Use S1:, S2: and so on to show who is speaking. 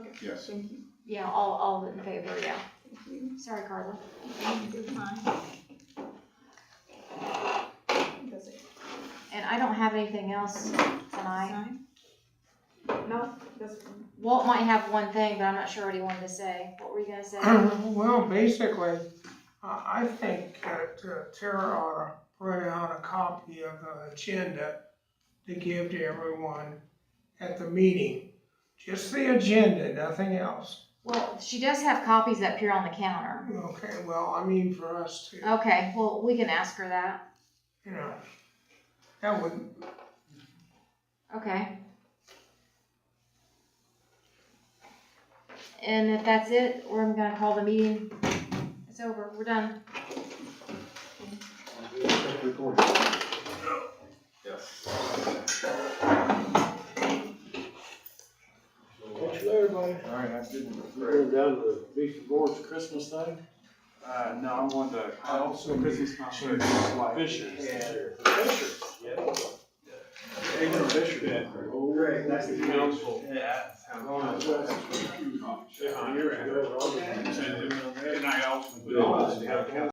S1: Yes.
S2: Thank you. Yeah, all, all in favor, yeah.
S1: Thank you.
S2: Sorry, Carla.
S1: You're fine. Does it
S2: And I don't have anything else tonight.
S1: sign? No, this one.
S2: Walt might have one thing, but I'm not sure what he wanted to say. What were you gonna say?
S3: Well, basically, I, I think that uh, Tara ought to print out a copy of the agenda to give to everyone at the meeting. Just the agenda, nothing else.
S2: Well, she does have copies up here on the counter.
S3: Okay, well, I mean for us to,
S2: Okay, well, we can ask her that.
S3: you know, that would,
S2: Okay. And if that's it, we're gonna call the meeting. It's over, we're done.
S4: Catch you later, buddy.
S5: All right, I didn't.
S4: We're going down to the Beach Board's Christmas thing.
S5: Uh, no, I'm going to, I also business concert.
S4: Fishers. Fishers, yeah. Adrian Fisher. Great, nice to meet you.
S5: Yeah.
S4: Years ago, Robert.
S5: And I also.
S4: Yeah.